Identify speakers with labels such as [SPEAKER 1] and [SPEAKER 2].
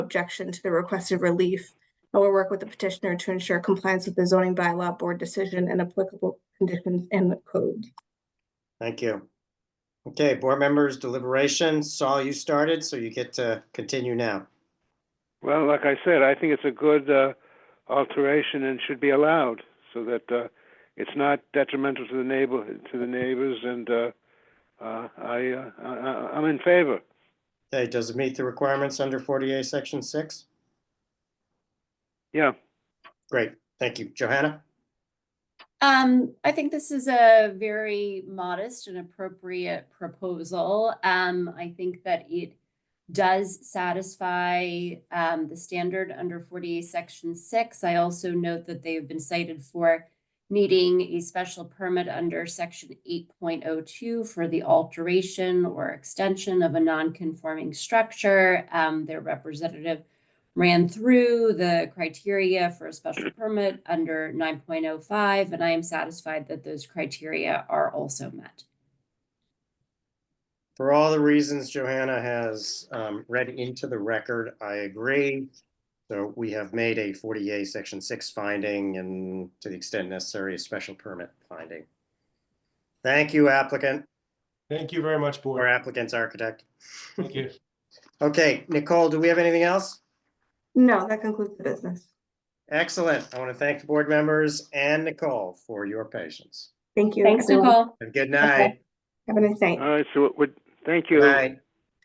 [SPEAKER 1] objection to the requested relief. I will work with the petitioner to ensure compliance with the zoning bylaw board decision and applicable conditions and the code.
[SPEAKER 2] Thank you. Okay, board members deliberation. Saul, you started, so you get to continue now.
[SPEAKER 3] Well, like I said, I think it's a good uh, alteration and should be allowed so that uh, it's not detrimental to the neighbor to the neighbors. And uh, uh, I, uh, I I- I'm in favor.
[SPEAKER 2] Okay, does it meet the requirements under 48, section six?
[SPEAKER 3] Yeah,
[SPEAKER 2] Great, thank you. Johanna?
[SPEAKER 4] Um, I think this is a very modest and appropriate proposal. Um, I think that it does satisfy um the standard under forty-eight, section six. I also note that they have been cited for needing a special permit under section eight point oh two for the alteration or extension of a non-conforming structure. Um, their representative ran through the criteria for a special permit under nine point oh five, and I am satisfied that those criteria are also met.
[SPEAKER 2] For all the reasons Johanna has um, read into the record, I agree. So we have made a 48, section six finding and to the extent necessary, a special permit finding. Thank you applicant,
[SPEAKER 5] Thank you very much,
[SPEAKER 2] or
[SPEAKER 5] board.
[SPEAKER 2] applicant's architect.
[SPEAKER 5] Thank you.
[SPEAKER 2] Okay, Nicole, do we have anything else?
[SPEAKER 1] No, that concludes the business.
[SPEAKER 2] Excellent. I want to thank the board members and Nicole for your patience.
[SPEAKER 1] Thank you.
[SPEAKER 4] Thanks,
[SPEAKER 1] everyone.
[SPEAKER 4] Nicole.
[SPEAKER 2] Have a good night.
[SPEAKER 1] Have a nice night.
[SPEAKER 3] all right. So, what, thank you.
[SPEAKER 2] Good night.